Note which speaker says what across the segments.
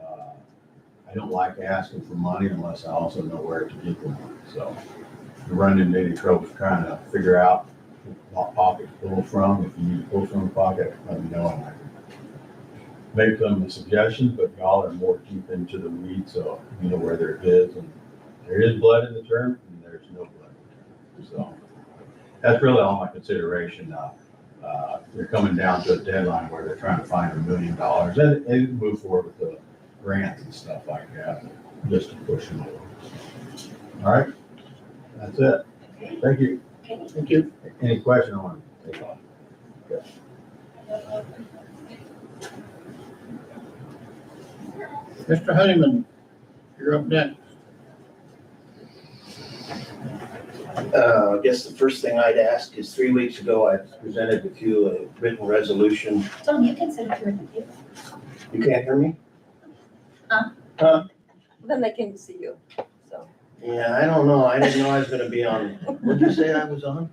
Speaker 1: Uh, I don't like asking for money unless I also know where to get the money, so. you Run into any trouble trying to figure out what pocket to pull from, if you need to pull from a pocket, let me know. and I can Make them a suggestion, but y'all are more deep into the weeds, so you know where there is, and there is blood in the term, and there's no blood in the term, so. That's really all my consideration, uh, uh, they're coming down to a deadline where they're trying to find a million dollars and, and move forward with the grants and stuff like that, just to push them along. All right, that's it.
Speaker 2: Okay.
Speaker 1: Thank you.
Speaker 3: Thank you.
Speaker 1: Any question on it? Okay.
Speaker 3: Mr. Honeyman, you're up next.
Speaker 4: Uh, I guess the first thing I'd ask is, three weeks ago, I presented with you a written resolution.
Speaker 2: Tom, you can send it to her.
Speaker 4: You can't hear me?
Speaker 2: Huh?
Speaker 4: Huh?
Speaker 5: Then they came to see you, so.
Speaker 4: Yeah, I don't know. I didn't know I was gonna be on. What'd you say I was on?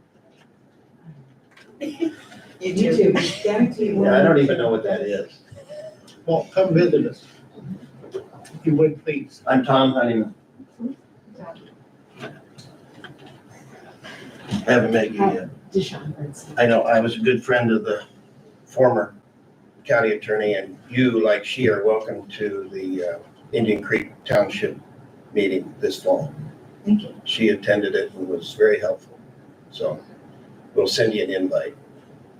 Speaker 6: YouTube, down to
Speaker 4: Yeah, I don't even know what that is.
Speaker 3: Well, come visit us. If you would, please.
Speaker 4: I'm Tom Honeyman. Haven't met you yet.
Speaker 6: Deshaun Hurts.
Speaker 4: I know, I was a good friend of the former county attorney, and you, like she, are welcome to the uh, Indian Creek Township meeting this fall.
Speaker 6: Thank you.
Speaker 4: She attended it and was very helpful, so we'll send you an invite.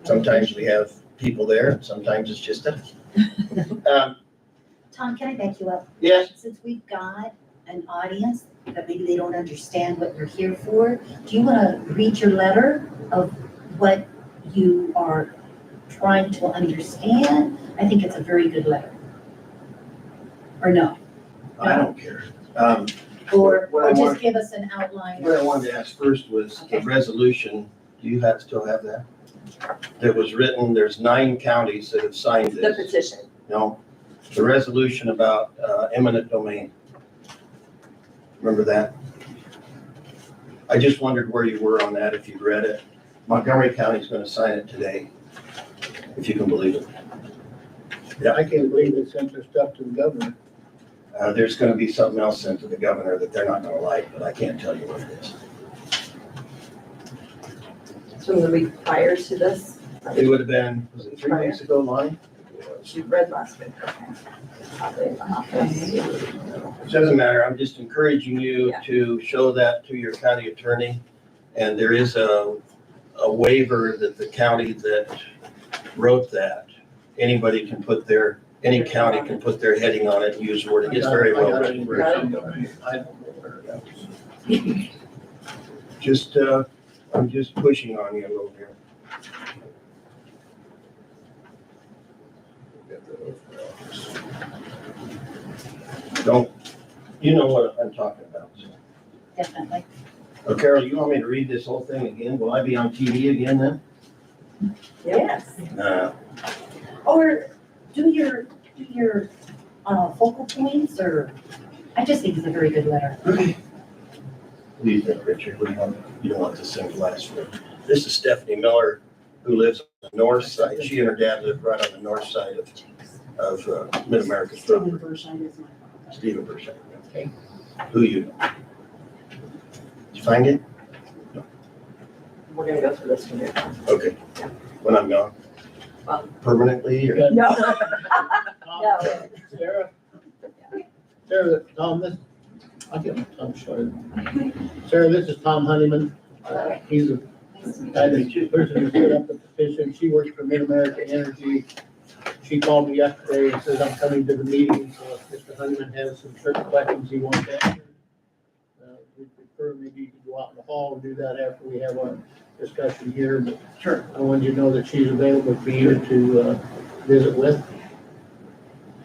Speaker 4: Sometimes we have people there, sometimes it's just us. Um,
Speaker 2: Tom, can I back you up?
Speaker 4: Yes,
Speaker 2: Since we've got an audience that maybe they don't understand what you're here for, do you want to read your letter of what you are trying to understand? I think it's a very good letter. Or no,
Speaker 4: I don't care. Um,
Speaker 2: or,
Speaker 4: What I
Speaker 2: or just
Speaker 4: want-
Speaker 2: give us an outline.
Speaker 4: What I wanted to ask first was the
Speaker 2: Okay.
Speaker 4: resolution, do you have, still have that? That was written, there's nine counties that have signed
Speaker 5: The
Speaker 4: this.
Speaker 5: petition.
Speaker 4: No, the resolution about uh, eminent domain. Remember that? I just wondered where you were on that, if you'd read it. Montgomery County's gonna sign it today, if you can believe it.
Speaker 3: I can't believe they sent their stuff to the governor.
Speaker 4: Uh, There's gonna be something else sent to the governor that they're not gonna like, but I can't tell you what it is.
Speaker 5: So the week prior to this,
Speaker 4: It would have been, was it three weeks ago, Lonnie?
Speaker 5: she read last week, okay. Probably in my office.
Speaker 4: It doesn't matter, I'm just encouraging you
Speaker 5: Yeah.
Speaker 4: to show that to your county attorney. And there is a, a waiver that the county that wrote that, anybody can put their, any county can put their heading on it and use word, it gets very
Speaker 3: I
Speaker 4: well
Speaker 3: got it.
Speaker 4: written.
Speaker 3: I don't know where it is.
Speaker 4: Just, uh, I'm just pushing on you a little here. Don't, you know what I'm talking about, so.
Speaker 2: Definitely.
Speaker 4: Oh, Carol, you want me to read this whole thing again? Will I be on TV again then?
Speaker 5: Mm-hmm. Yes.
Speaker 4: No.
Speaker 2: Or do your, do your, uh, focal points or, I just think it's a very good letter.
Speaker 4: What do you think, Richard? What do you want? You don't want this thing to last forever. This is Stephanie Miller, who lives on the north side. She and her dad live right on the north side of, of uh, Mid-America's
Speaker 6: Stephen
Speaker 4: property,
Speaker 6: Bershine is my.
Speaker 4: Stephen Burchett. Who you know? Did you find it?
Speaker 5: We're gonna go through this one here.
Speaker 4: Okay. When I'm gone?
Speaker 5: Um.
Speaker 4: Permanently or?
Speaker 3: Got
Speaker 5: No,
Speaker 3: Tom,
Speaker 5: no.
Speaker 3: Sarah. Sarah, Tom, this, I get my tongue shorted. Sarah, this is Tom Honeyman. Uh, He's a I think the person who set up the petition, she works for Mid-America Energy. She called me yesterday and says, I'm coming to the meeting, so if Mr. Honeyman has some certain questions he wants answered. uh, We prefer maybe you could go out in the hall and do that after we have our discussion here, but. Sure. I wanted you to know that she's available for you to uh, visit with.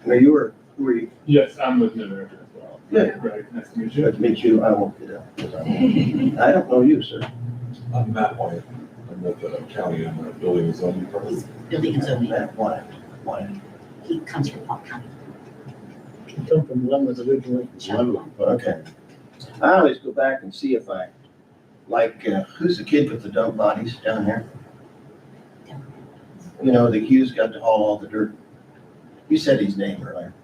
Speaker 4: No, you were, who were you?
Speaker 7: Yes, I'm with Mid-America as well.
Speaker 4: Good.
Speaker 7: Right, nice to meet you.
Speaker 4: Good to meet you. I won't get up. 'cause I'm- I don't know you, sir.
Speaker 8: I'm Matt White. I'm with the county and the building and zoning department.
Speaker 2: Building and zoning,
Speaker 4: Matt Wyatt, Wyatt.
Speaker 2: he comes from Palm County.
Speaker 3: She come from Lemon's originally.
Speaker 4: Okay. I always go back and see if I, like, uh, who's the kid with the dump bodies down there? You know, the Hughes got to haul all the dirt. You said his name earlier.